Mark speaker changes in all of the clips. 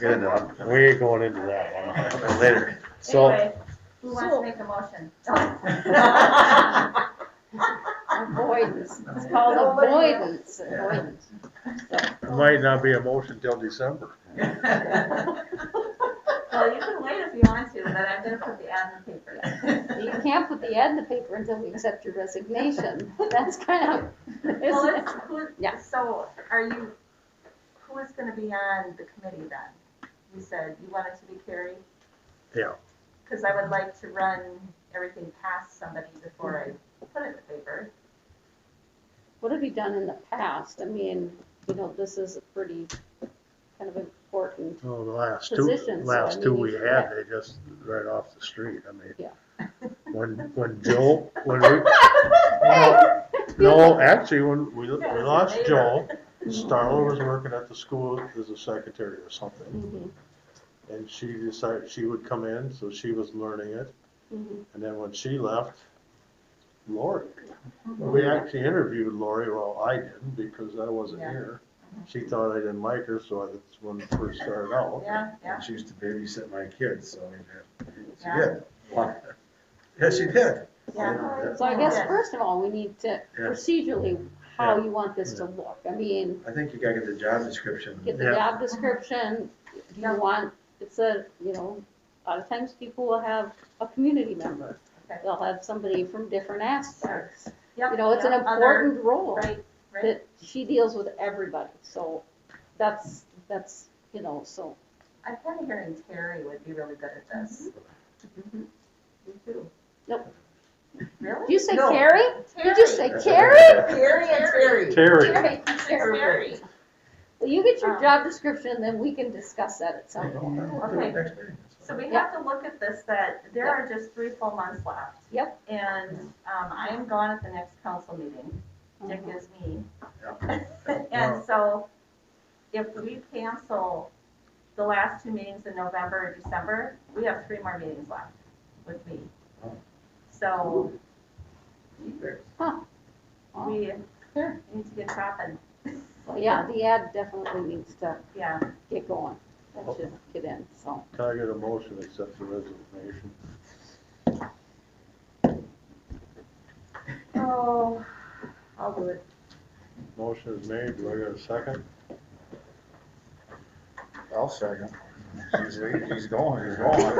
Speaker 1: Good, I'll,
Speaker 2: We're going into that one.
Speaker 1: I'll later.
Speaker 2: So,
Speaker 3: Anyway, Who wants to
Speaker 4: So-
Speaker 3: make a motion?
Speaker 4: Avoidance, it's called
Speaker 3: Nobody-
Speaker 4: avoidance, avoidance.
Speaker 5: It might not be a motion till December.
Speaker 3: Well, you can wait if you want to, but I'm gonna put the ad in the paper.
Speaker 4: You can't put the ad in the paper until we accept your resignation, that's kind of,
Speaker 3: Well, it's, who,
Speaker 4: Yeah.
Speaker 3: so are you, who is gonna be on the committee then? You said you wanted to be Carrie?
Speaker 5: Yeah.
Speaker 3: Cause I would like to run everything past somebody before I put it in the paper.
Speaker 4: what have you done in the past? I mean, you know, this is a pretty kind of important,
Speaker 5: Well, Oh, the last two,
Speaker 4: Positions, so I
Speaker 5: last two
Speaker 4: mean,
Speaker 5: we
Speaker 4: you-
Speaker 5: had, they just right off the street, I mean.
Speaker 4: Yeah.
Speaker 5: When, when Joe, when we, no, no, actually, when we, we lost Joe, Starla was working at the school as a secretary or something.
Speaker 4: mhm,
Speaker 5: And she decided she would come in, so she was learning it.
Speaker 4: mhm.
Speaker 5: And then when she left, Lori. We actually interviewed Lori, well, I didn't because I wasn't
Speaker 3: Yeah.
Speaker 5: here. She thought I didn't like her, so that's when it first started out.
Speaker 3: Yeah, yeah,
Speaker 1: She used to babysit my kids, so she
Speaker 3: Yeah.
Speaker 1: did. Yes, she did.
Speaker 3: yeah.
Speaker 4: So I guess
Speaker 3: Yeah.
Speaker 4: first of all, we need to procedurally, how you want this to look. I mean,
Speaker 1: I think you gotta get the job description.
Speaker 4: get the
Speaker 5: Yeah.
Speaker 4: job description, do
Speaker 3: Yeah.
Speaker 4: you want, it's a, you know, a lot of times people will have a community member.
Speaker 3: Okay.
Speaker 4: They'll have somebody from different aspects.
Speaker 3: Yep,
Speaker 4: You know, it's an
Speaker 3: yep, other-
Speaker 4: important role
Speaker 3: Right, right.
Speaker 4: that she deals with everybody, so that's, that's, you know, so.
Speaker 3: I'm kinda hearing Terry would be really good at this.
Speaker 4: Mhm.
Speaker 3: You too.
Speaker 4: Nope. Did
Speaker 3: Really?
Speaker 4: you say
Speaker 6: No.
Speaker 4: Carrie? Did you say Carrie?
Speaker 1: Carrie?
Speaker 6: Carrie and Terry.
Speaker 5: Terry,
Speaker 4: Carrie, Carrie.
Speaker 3: Terry.
Speaker 4: Well, you get your
Speaker 3: Um,
Speaker 4: job description, then we can discuss that at some point.
Speaker 3: Okay. So we have to look at this, that there
Speaker 4: Yep.
Speaker 3: are just three full months left.
Speaker 4: Yep.
Speaker 3: And, um, I am gone at the next council meeting, Dick
Speaker 4: Mhm.
Speaker 3: is me.
Speaker 5: Yeah.
Speaker 3: And so, if we cancel the last two meetings in November or December, we have three more meetings left with me.
Speaker 1: Oh.
Speaker 3: So,
Speaker 4: Oh.
Speaker 3: we
Speaker 4: Sure.
Speaker 3: need to get shopping,
Speaker 4: Well, yeah, the ad definitely needs to
Speaker 3: yeah.
Speaker 4: get going, that should get in, so.
Speaker 5: can I get a motion to accept the resignation?
Speaker 3: Oh, I'll do it.
Speaker 5: Motion is made, do I get a second?
Speaker 1: I'll second. He's, he's going, he's going.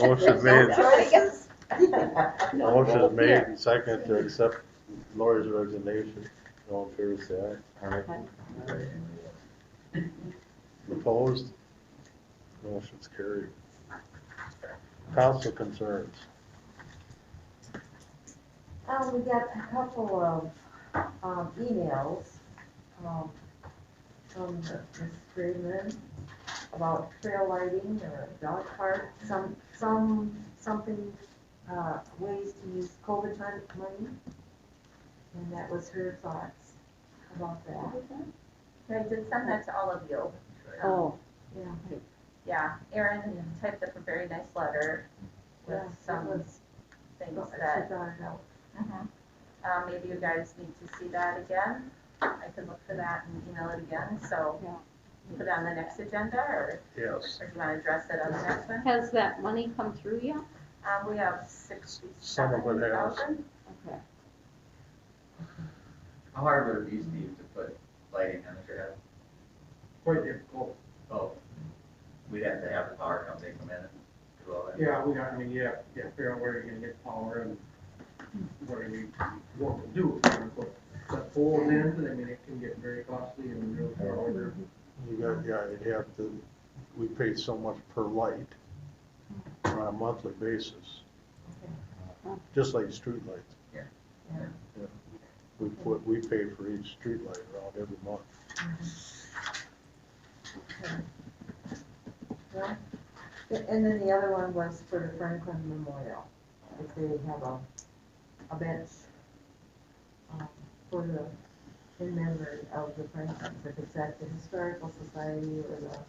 Speaker 5: Motion made,
Speaker 3: Choices.
Speaker 5: motion is made and second to accept Lori's resignation. All in favor, say aye. Opposed? Motion's carried. Council concerns.
Speaker 6: Um, we got a couple of, um, emails, um, from Ms. Freeman about trail lighting or dog park, some, some, something, uh, ways to use COVID mon- money. And that was her thoughts about that.
Speaker 3: I did send that to all of you. Um,
Speaker 4: Oh,
Speaker 3: Yeah, Erin typed up a very nice letter with
Speaker 6: Yeah, that
Speaker 3: some
Speaker 6: was, she
Speaker 3: things
Speaker 6: brought
Speaker 3: that,
Speaker 6: it out.
Speaker 3: Mhm. uh, maybe you guys need to see that again. I can look for that and email it again, so
Speaker 4: Yeah.
Speaker 3: put it on the next agenda, or
Speaker 5: Yes,
Speaker 3: or do you want to address it on the next one?
Speaker 4: has that money come through yet?
Speaker 3: Um, we have
Speaker 5: Some
Speaker 3: sixty-seven
Speaker 5: of it has.
Speaker 3: thousand.
Speaker 4: Okay.
Speaker 7: How hard would it be, Steve, to put lighting on if you had?
Speaker 8: quite difficult.
Speaker 7: Oh, we'd have to have the power company come in and do all that.
Speaker 8: Yeah, we got, I mean, yeah, yeah, figure out where you're gonna get power and what are we, what we do. But poles in, I mean, it can get very costly and real far over.
Speaker 5: you got, yeah, you have to, we pay so much per light on a monthly basis. Just like streetlights.
Speaker 7: Yeah.
Speaker 6: Yeah.
Speaker 5: Yeah. We put, we pay for each streetlight around every month.
Speaker 6: And then the other one was for the Franklin Memorial, if they have a, a bench um, for the, in memory of the Franklins, if it's at the Historical Society or the, um,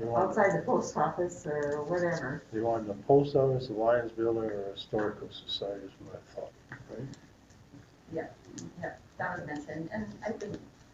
Speaker 5: You want,
Speaker 6: outside the post office or whatever.
Speaker 5: you want the post office, the Lions Building, or Historical Society is what I thought.
Speaker 3: That was mentioned, and I think